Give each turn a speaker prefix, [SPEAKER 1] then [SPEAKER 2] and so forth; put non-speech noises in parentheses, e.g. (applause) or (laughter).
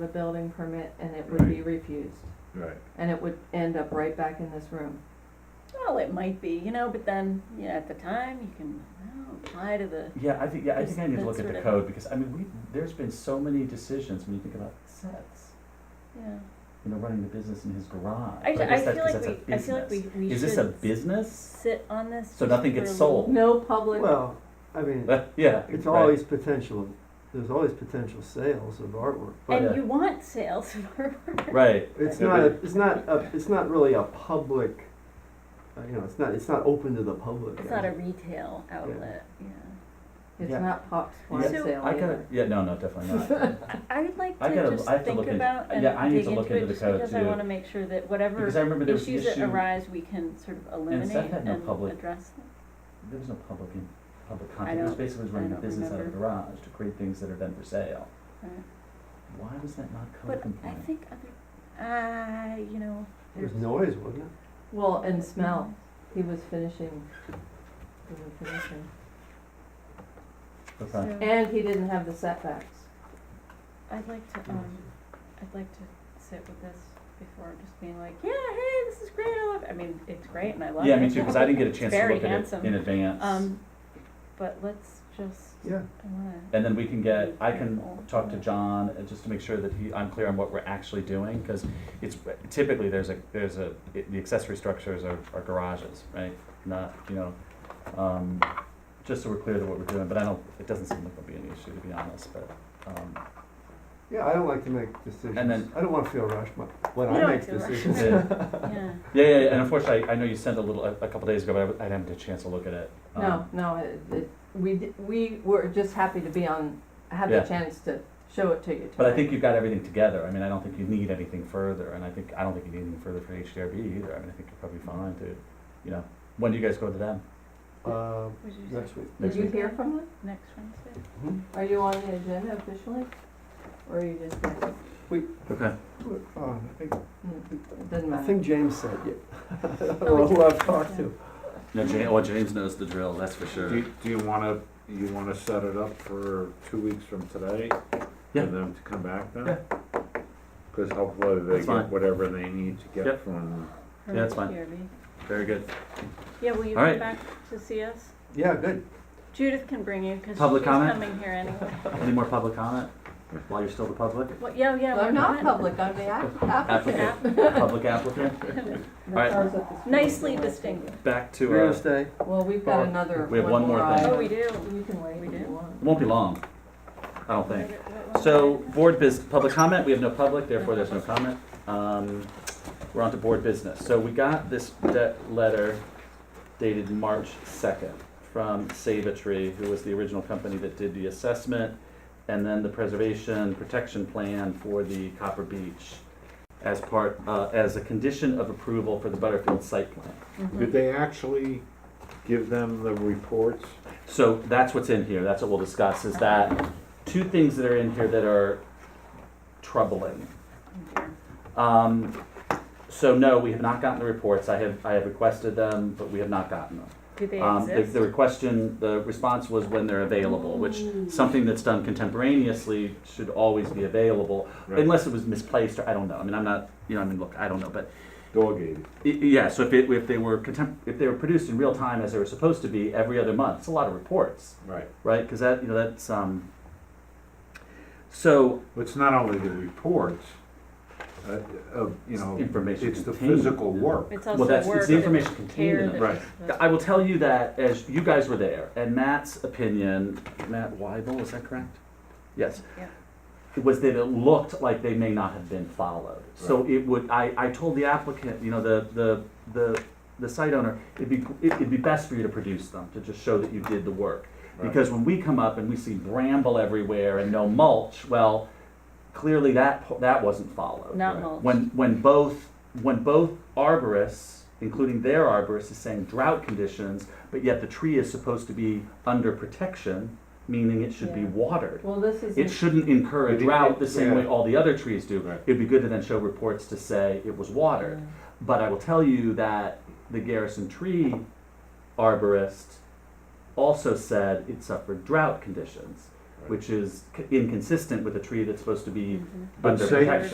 [SPEAKER 1] the building permit and it would be refused.
[SPEAKER 2] Right,
[SPEAKER 1] And it would end up right back in this room.
[SPEAKER 3] Well, it might be, you know, but then, you know, at the time, you can, oh, apply to the,
[SPEAKER 4] Yeah, I think, yeah, I
[SPEAKER 3] There's
[SPEAKER 4] think I need to
[SPEAKER 3] been
[SPEAKER 4] look at
[SPEAKER 3] sort
[SPEAKER 4] the
[SPEAKER 3] of-
[SPEAKER 4] code, because, I mean, we, there's been so many decisions when you think about sets.
[SPEAKER 3] yeah.
[SPEAKER 4] You know, running the business in his garage.
[SPEAKER 3] I,
[SPEAKER 4] But
[SPEAKER 3] I
[SPEAKER 4] guess that's
[SPEAKER 3] feel
[SPEAKER 4] 'cause
[SPEAKER 3] like
[SPEAKER 4] that's a
[SPEAKER 3] we, I feel like we,
[SPEAKER 4] business.
[SPEAKER 3] we should.
[SPEAKER 4] Is this a business?
[SPEAKER 3] Sit on this.
[SPEAKER 4] So nothing
[SPEAKER 3] for a
[SPEAKER 4] gets
[SPEAKER 3] little-
[SPEAKER 4] sold.
[SPEAKER 1] No public,
[SPEAKER 5] Well, I mean,
[SPEAKER 4] But, (laughs) yeah.
[SPEAKER 5] it's
[SPEAKER 4] right.
[SPEAKER 5] always potential, there's always potential sales of artwork.
[SPEAKER 4] But, uh,
[SPEAKER 3] And you want sales (laughs) for,
[SPEAKER 4] Right,
[SPEAKER 5] It's
[SPEAKER 4] Yeah,
[SPEAKER 5] not, a- it's not, a- it's not really a public, uh, you know, it's not, it's not open to the public.
[SPEAKER 3] it's not a retail outlet, yeah.
[SPEAKER 1] it's
[SPEAKER 4] yeah.
[SPEAKER 1] not Pop's
[SPEAKER 3] Yeah.
[SPEAKER 1] fire
[SPEAKER 3] So-
[SPEAKER 1] sale
[SPEAKER 4] I gotta,
[SPEAKER 1] either.
[SPEAKER 4] yeah, no, no, definitely not.
[SPEAKER 5] (laughs)
[SPEAKER 3] I would like
[SPEAKER 4] I
[SPEAKER 3] to
[SPEAKER 4] gotta-
[SPEAKER 3] just
[SPEAKER 4] I have to
[SPEAKER 3] think
[SPEAKER 4] look into-
[SPEAKER 3] about and
[SPEAKER 4] yeah, I need
[SPEAKER 3] dig
[SPEAKER 4] to look
[SPEAKER 3] into it,
[SPEAKER 4] into the
[SPEAKER 3] just
[SPEAKER 4] code
[SPEAKER 3] because I
[SPEAKER 4] too.
[SPEAKER 3] wanna make sure that
[SPEAKER 4] Because
[SPEAKER 3] whatever
[SPEAKER 4] I remember there was an
[SPEAKER 3] issues that
[SPEAKER 4] issue, there
[SPEAKER 3] arise, we can sort of eliminate
[SPEAKER 4] Seth
[SPEAKER 3] and
[SPEAKER 4] had no public-
[SPEAKER 3] address them.
[SPEAKER 4] was no public in, public content, it was
[SPEAKER 3] don't-
[SPEAKER 4] basically
[SPEAKER 3] I
[SPEAKER 4] running a
[SPEAKER 3] don't
[SPEAKER 4] business out of a
[SPEAKER 3] remember.
[SPEAKER 4] garage to create things that are then for sale.
[SPEAKER 3] Right.
[SPEAKER 4] Why was that not code
[SPEAKER 3] But I
[SPEAKER 4] compliant?
[SPEAKER 3] think other, uh, you know,
[SPEAKER 5] It was
[SPEAKER 3] there's-
[SPEAKER 5] noise, wasn't it?
[SPEAKER 1] Well, and smell, he was finishing, he was finishing.
[SPEAKER 4] Okay.
[SPEAKER 3] So-
[SPEAKER 1] And he didn't have the setbacks.
[SPEAKER 3] I'd like to, um, I'd like to sit with this before just being like, yeah, hey, this is great, I love, I mean, it's great and I love it.
[SPEAKER 4] Yeah, me too, because I didn't get a
[SPEAKER 3] It's
[SPEAKER 4] chance to
[SPEAKER 3] very
[SPEAKER 4] look at it
[SPEAKER 3] handsome.
[SPEAKER 4] in advance.
[SPEAKER 3] Um, but let's just,
[SPEAKER 5] Yeah.
[SPEAKER 3] I wanna,
[SPEAKER 4] And then we can get, I can
[SPEAKER 3] Careful.
[SPEAKER 4] talk to John, uh, just to make sure that he, I'm clear on what we're actually doing, because it's, typically, there's a, there's a, it- the accessory structures are, are garages, right? Not, you know, um, just so we're clear that what we're doing, but I don't, it doesn't seem like there'll be any issue, to be honest, but, um,
[SPEAKER 5] Yeah, I don't like to make decisions.
[SPEAKER 4] And then-
[SPEAKER 5] I don't wanna feel rushed when- when
[SPEAKER 3] You
[SPEAKER 5] I
[SPEAKER 3] don't
[SPEAKER 5] make
[SPEAKER 3] feel rushed.
[SPEAKER 5] decisions.
[SPEAKER 4] yeah, (laughs)
[SPEAKER 3] yeah,
[SPEAKER 4] yeah, yeah, and unfortunately, I I know you sent a little, a a couple days ago, but I w- I didn't have a chance to look at it. Um,
[SPEAKER 1] No, no, it, it, we, d- we were just happy to be on, have the
[SPEAKER 4] Yeah.
[SPEAKER 1] chance to show it to you
[SPEAKER 4] But I
[SPEAKER 1] tonight.
[SPEAKER 4] think you've got everything together, I mean, I don't think you need anything further, and I think, I don't think you need anything further for HDRB either, I mean, I think you're probably fine to, you know, when do you guys go to them?
[SPEAKER 5] Uh,
[SPEAKER 3] would you say
[SPEAKER 5] next week.
[SPEAKER 4] Next
[SPEAKER 1] Did you
[SPEAKER 4] week.
[SPEAKER 1] hear from them?
[SPEAKER 3] next Wednesday?
[SPEAKER 5] Mhm.
[SPEAKER 1] Are you on the agenda officially? Or are you just,
[SPEAKER 4] Okay.
[SPEAKER 5] Uh, I think-
[SPEAKER 1] mm, doesn't
[SPEAKER 5] I
[SPEAKER 1] matter?
[SPEAKER 5] think James said, yeah. (laughs) I
[SPEAKER 3] Oh,
[SPEAKER 5] don't know who I've
[SPEAKER 3] (laughs)
[SPEAKER 5] talked to.
[SPEAKER 4] No, James, well, James knows the drill, that's for
[SPEAKER 2] do, you- do you wanna, you wanna set it up for two weeks from today?
[SPEAKER 4] Yeah.
[SPEAKER 2] For them to come back then?
[SPEAKER 4] Yeah.
[SPEAKER 2] Cause hopefully they
[SPEAKER 4] That's fine.
[SPEAKER 2] get whatever they need to get
[SPEAKER 4] Yep.
[SPEAKER 2] from,
[SPEAKER 3] Or
[SPEAKER 4] Yeah, that's fine.
[SPEAKER 3] TRB?
[SPEAKER 4] Very good.
[SPEAKER 3] Yeah, will you
[SPEAKER 4] All right.
[SPEAKER 3] come back to see us?
[SPEAKER 5] Yeah, good.
[SPEAKER 3] Judith can bring you, cause she's
[SPEAKER 4] Public comment?
[SPEAKER 3] coming here anyway.
[SPEAKER 4] Any more public comment while you're still the (laughs) public?
[SPEAKER 3] Well, yeah, yeah.
[SPEAKER 1] I'm
[SPEAKER 3] we're
[SPEAKER 1] not
[SPEAKER 3] fine.
[SPEAKER 1] public, I'm the app-
[SPEAKER 4] (laughs)
[SPEAKER 1] applicant.
[SPEAKER 4] Applicant, public applicant? Alright,
[SPEAKER 3] Nicely distinguished.
[SPEAKER 4] back to,
[SPEAKER 5] We're
[SPEAKER 4] uh,
[SPEAKER 5] gonna stay.
[SPEAKER 1] Well, we've got another,
[SPEAKER 4] We have
[SPEAKER 1] one
[SPEAKER 4] one
[SPEAKER 1] more
[SPEAKER 4] more
[SPEAKER 1] item.
[SPEAKER 4] thing.
[SPEAKER 3] Oh, we do.
[SPEAKER 1] You can wait
[SPEAKER 3] We
[SPEAKER 1] if you
[SPEAKER 3] do?
[SPEAKER 4] it
[SPEAKER 1] want.
[SPEAKER 4] won't be long, I don't think.
[SPEAKER 3] What- what-
[SPEAKER 4] So, board biz, public comment, we have no public, therefore there's no comment. Um, We're on to board business. So we got this debt letter dated March second from Save a Tree, who was the original company that did the assessment and then the preservation protection plan for the Copper Beach as part, uh, as a condition of approval for the Butterfield site plan.
[SPEAKER 2] did
[SPEAKER 3] Mhm.
[SPEAKER 2] they actually give them the reports?
[SPEAKER 4] So that's what's in here, that's what we'll discuss, is that two things that are in here that are troubling. Um, so no, we have not gotten the reports. I have, I have requested them, but we have not gotten them.
[SPEAKER 3] Do they
[SPEAKER 4] Um, the,
[SPEAKER 3] exist?
[SPEAKER 4] the question, the response was when they're available, which
[SPEAKER 3] Mm.
[SPEAKER 4] something that's done contemporaneously should always be available,
[SPEAKER 2] Right.
[SPEAKER 4] unless it was misplaced or I don't know. I mean, I'm not, you know, I mean, look, I don't know, but
[SPEAKER 2] Dog ate it.
[SPEAKER 4] I- Yeah, so if, it, if they were contem- if they were produced in real time as they were supposed to be every other month, it's a lot of reports,
[SPEAKER 2] Right.
[SPEAKER 4] right? Because that you know that's um. So
[SPEAKER 2] Well, It's not only the reports, uh, of, you know,
[SPEAKER 4] Information
[SPEAKER 2] it's the
[SPEAKER 4] contained.
[SPEAKER 2] physical work.
[SPEAKER 3] It's
[SPEAKER 4] well,
[SPEAKER 3] also
[SPEAKER 4] that's
[SPEAKER 3] work
[SPEAKER 4] it's the
[SPEAKER 3] that
[SPEAKER 4] information contained
[SPEAKER 3] care
[SPEAKER 4] in it.
[SPEAKER 3] that
[SPEAKER 2] Right.
[SPEAKER 3] was-
[SPEAKER 4] I will tell you that as you guys were there, and Matt's opinion, Matt Weibel, is that correct? Yes.
[SPEAKER 3] Yeah.
[SPEAKER 4] Was that it looked like they may not have been followed. So it would, I, I told the applicant, you know, the, the, the, the site owner, it'd be, it'd be best for you to produce them, to just show that you did the work. Because when we come up and we see bramble everywhere and no mulch, well, clearly that, po- that wasn't followed.
[SPEAKER 3] Not
[SPEAKER 2] Right.
[SPEAKER 3] mulch.
[SPEAKER 4] When, when both, when both arborists, including their arborist, is saying drought conditions, but yet the tree is supposed to be under protection, meaning it should be
[SPEAKER 3] Yeah.
[SPEAKER 4] watered.
[SPEAKER 1] Well, this
[SPEAKER 4] It
[SPEAKER 1] is,
[SPEAKER 4] shouldn't incur a
[SPEAKER 2] It- it-
[SPEAKER 4] drought the same way
[SPEAKER 2] yeah.
[SPEAKER 4] all the other trees do.
[SPEAKER 2] Right.
[SPEAKER 4] It'd be good to then show reports to say it was watered. But I will tell you that the Garrison Tree arborist also said it suffered drought conditions. which is c- inconsistent with a tree that's supposed to
[SPEAKER 3] Mhm.
[SPEAKER 4] be
[SPEAKER 2] But
[SPEAKER 4] under
[SPEAKER 2] say-
[SPEAKER 3] Mm-hmm.
[SPEAKER 4] protection.